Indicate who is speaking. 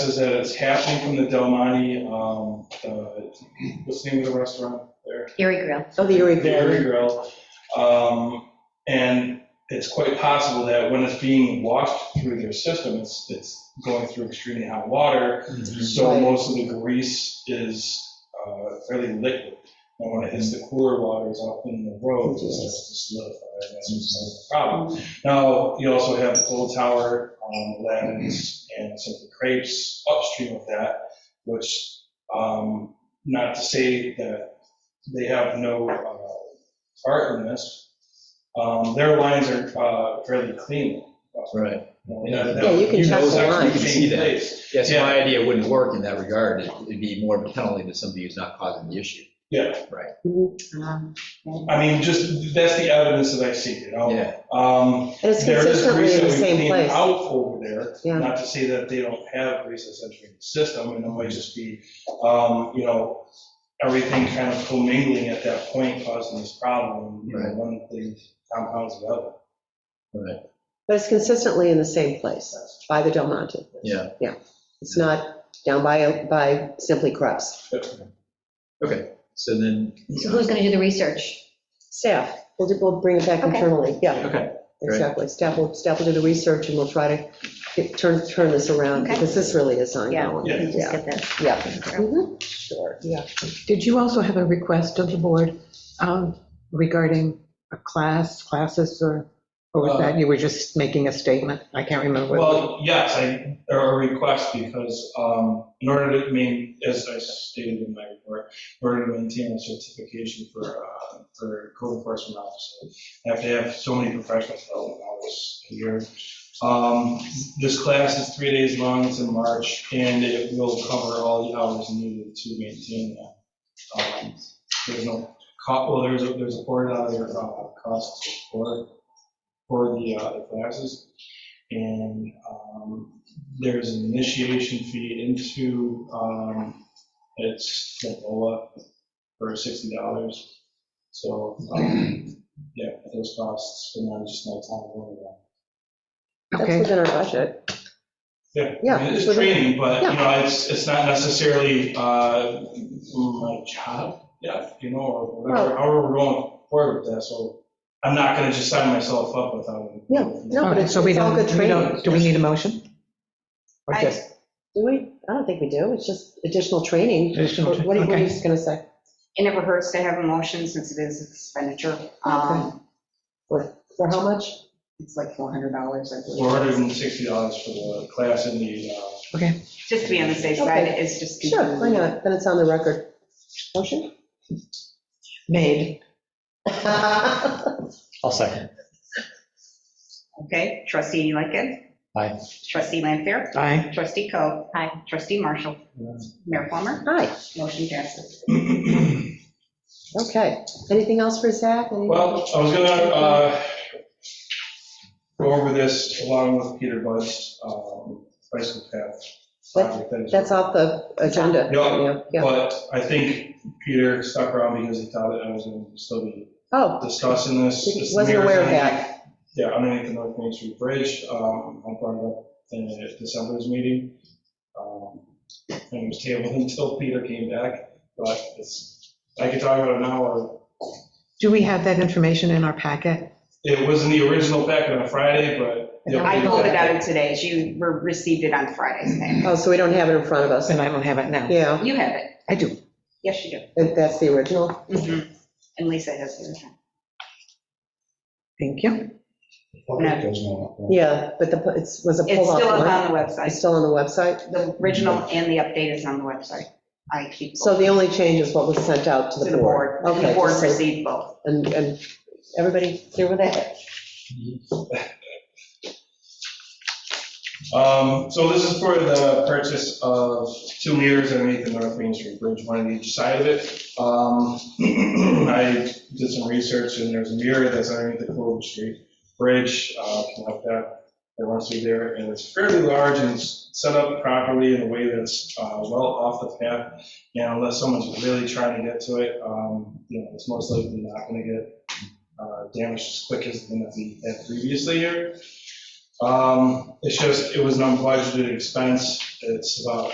Speaker 1: says that it's happening from the Del Monte, um, the- what's the name of the restaurant there?
Speaker 2: Erie Grill.
Speaker 3: Oh, the Erie
Speaker 1: Dairy
Speaker 3: Grill.
Speaker 1: Grill. Um, And it's quite possible that when it's being washed through their system, it's, it's going through extremely hot water. So
Speaker 3: Right.
Speaker 1: most of the grease is uh, fairly liquid. And when it hits the cooler waters up in the road, it's just solidified. and That's just a problem.
Speaker 3: Mm-hmm.
Speaker 1: Now, you also have the Old Tower, um, Lavins, and some of the crepes upstream of that, which, um, not to say that they have no uh, art in this. Um, Their lines are uh, fairly clean.
Speaker 4: Right.
Speaker 3: Yeah, you can check the line.
Speaker 4: You can see that. Yeah, so
Speaker 1: Yeah.
Speaker 4: my idea wouldn't work in that regard. It- It'd be more of a penalty to somebody who's not causing the issue.
Speaker 1: Yeah,
Speaker 3: Um,
Speaker 1: I mean, just, that's the evidence that I see, you know?
Speaker 4: Yeah,
Speaker 1: Um,
Speaker 3: And it's
Speaker 1: There is
Speaker 3: consistently
Speaker 1: grease
Speaker 3: in
Speaker 1: that
Speaker 3: the
Speaker 1: we
Speaker 3: same
Speaker 1: clean
Speaker 3: place.
Speaker 1: out over there,
Speaker 3: Yeah.
Speaker 1: not to say that they don't have grease that's entering the system, and it might just be, um, you know, everything kind of commingling at that point causing this problem, you know,
Speaker 4: Right.
Speaker 1: one thing compounds the other.
Speaker 4: right,
Speaker 3: But it's consistently in the same place, by the Del Monte.
Speaker 4: yeah.
Speaker 3: It's not down by, by Simply Crust.
Speaker 4: So then,
Speaker 2: So who's going to do the research?
Speaker 3: Staff, we'll, do- we'll bring it back
Speaker 2: Okay.
Speaker 3: internally, yeah,
Speaker 4: okay, great.
Speaker 3: exactly. Staff will, staff will do the research and we'll try to get- turn, turn this around,
Speaker 2: Okay.
Speaker 3: because this really is ongoing.
Speaker 1: Yeah.
Speaker 2: Just
Speaker 3: Yeah,
Speaker 2: get that.
Speaker 3: yeah. Mhm. Sure, yeah.
Speaker 5: Did you also have a request of the board um, regarding a class, classes, or, or was that, you were just making a statement? I can't remember.
Speaker 1: Well, yes, I, or a request, because um, in order to main, as I stated in my report, in order to maintain a certification for, uh, for code enforcement officer, I have to have so many professional development hours a year. Um, This class is three days long, it's in March, and it will cover all the hours needed to maintain that. Um, There's no, co- well, there's, a there's a board out there, uh, cost for, for the uh, the classes. And um, there's an initiation fee into, um, it's Lola for $60. So, um, yeah, those costs, and then just no time going around.
Speaker 3: That's
Speaker 5: Okay,
Speaker 3: within our budget.
Speaker 1: Yeah.
Speaker 3: Yeah,
Speaker 1: I mean,
Speaker 3: it's
Speaker 1: It's
Speaker 3: within-
Speaker 1: training, but, you
Speaker 3: yeah.
Speaker 1: know, it's, it's not necessarily uh, my job, yeah, you know, or whatever,
Speaker 3: Well-
Speaker 1: however we're going forward with that, so I'm not going to just sign myself up without.
Speaker 3: Yeah,
Speaker 5: all
Speaker 3: no, but
Speaker 5: right,
Speaker 3: it's
Speaker 5: uh, so we
Speaker 3: it's all
Speaker 5: don't,
Speaker 3: good
Speaker 5: we
Speaker 3: training.
Speaker 5: don't, do we need a motion? Or
Speaker 3: I-
Speaker 5: just
Speaker 3: Do we? I don't think we do, it's just additional training.
Speaker 5: additional?
Speaker 3: What what are you
Speaker 5: okay.
Speaker 3: just gonna say?
Speaker 6: It never hurts to have a motion since it is expenditure. Um,
Speaker 3: For how much?
Speaker 6: It's like $400, I believe.
Speaker 1: $460 for the class in the uh,
Speaker 6: Just to be on the safe side, it's just.
Speaker 3: Sure, why not? Then it's on the record. Motion?
Speaker 5: Made.
Speaker 7: I'll second.
Speaker 6: Okay, trustee Lincoln.
Speaker 7: Aye.
Speaker 6: Trustee Lanfair.
Speaker 5: Aye.
Speaker 6: Trustee Coe.
Speaker 2: Aye.
Speaker 6: Trustee Marshall. Mayor Plummer.
Speaker 3: Hi,
Speaker 6: Motion passes.
Speaker 3: okay. Anything else for Zach? Anything-
Speaker 1: Well, I was gonna uh, go over this along with Peter Bud's um, bicycle path. project that is-
Speaker 3: That's off the agenda.
Speaker 1: Yeah.
Speaker 3: Yeah.
Speaker 1: But I think Peter stuck around because he thought that I was gonna still be
Speaker 3: Oh,
Speaker 1: discussing this.
Speaker 3: He
Speaker 1: It's
Speaker 3: wasn't aware of
Speaker 1: mirrors
Speaker 3: that.
Speaker 1: underneath- Yeah, underneath the North Main Street Bridge, um, I brought it up in December's meeting. um, And it was tabled until Peter came back, but it's, I could talk about it now or
Speaker 5: Do we have that information in our packet?
Speaker 1: It was in the original packet on Friday, but. the
Speaker 6: I
Speaker 1: updated
Speaker 6: voted
Speaker 1: packet-
Speaker 6: on it today. You were- received it on Friday's day.
Speaker 3: oh, so we don't have it in front of us.
Speaker 5: And I don't have it now.
Speaker 3: Yeah,
Speaker 6: You have it.
Speaker 5: I do.
Speaker 6: Yes, you
Speaker 3: and that's the original.
Speaker 6: do. Mhm. And Lisa has it.
Speaker 5: Thank you.
Speaker 6: No.
Speaker 3: Yeah, but the, it was a
Speaker 6: It's
Speaker 3: pull
Speaker 6: still up
Speaker 3: off.
Speaker 6: on the
Speaker 3: It's
Speaker 6: website.
Speaker 3: still on the website.
Speaker 6: The original and the update is on the website. I keep.
Speaker 3: So the only change is what was sent out to
Speaker 6: To
Speaker 3: the board.
Speaker 6: and The
Speaker 3: Okay,
Speaker 6: board
Speaker 3: just so-
Speaker 6: received both.
Speaker 3: And, and everybody clear with that?
Speaker 1: Um, So this is for the purchase of two mirrors underneath the North Main Street Bridge, one on each side of it. Um, I did some research and there's a mirror that's underneath the Clover Street Bridge, uh, connect that, that runs through there, and it's fairly large and it's set up properly in a way that's uh, well off the path. And unless someone's really trying to get to it, um, you know, it's most likely not going to get uh, damaged as quick as the one that we had previously here. Um, Um, It's just, it was an unbudgeted expense. It's about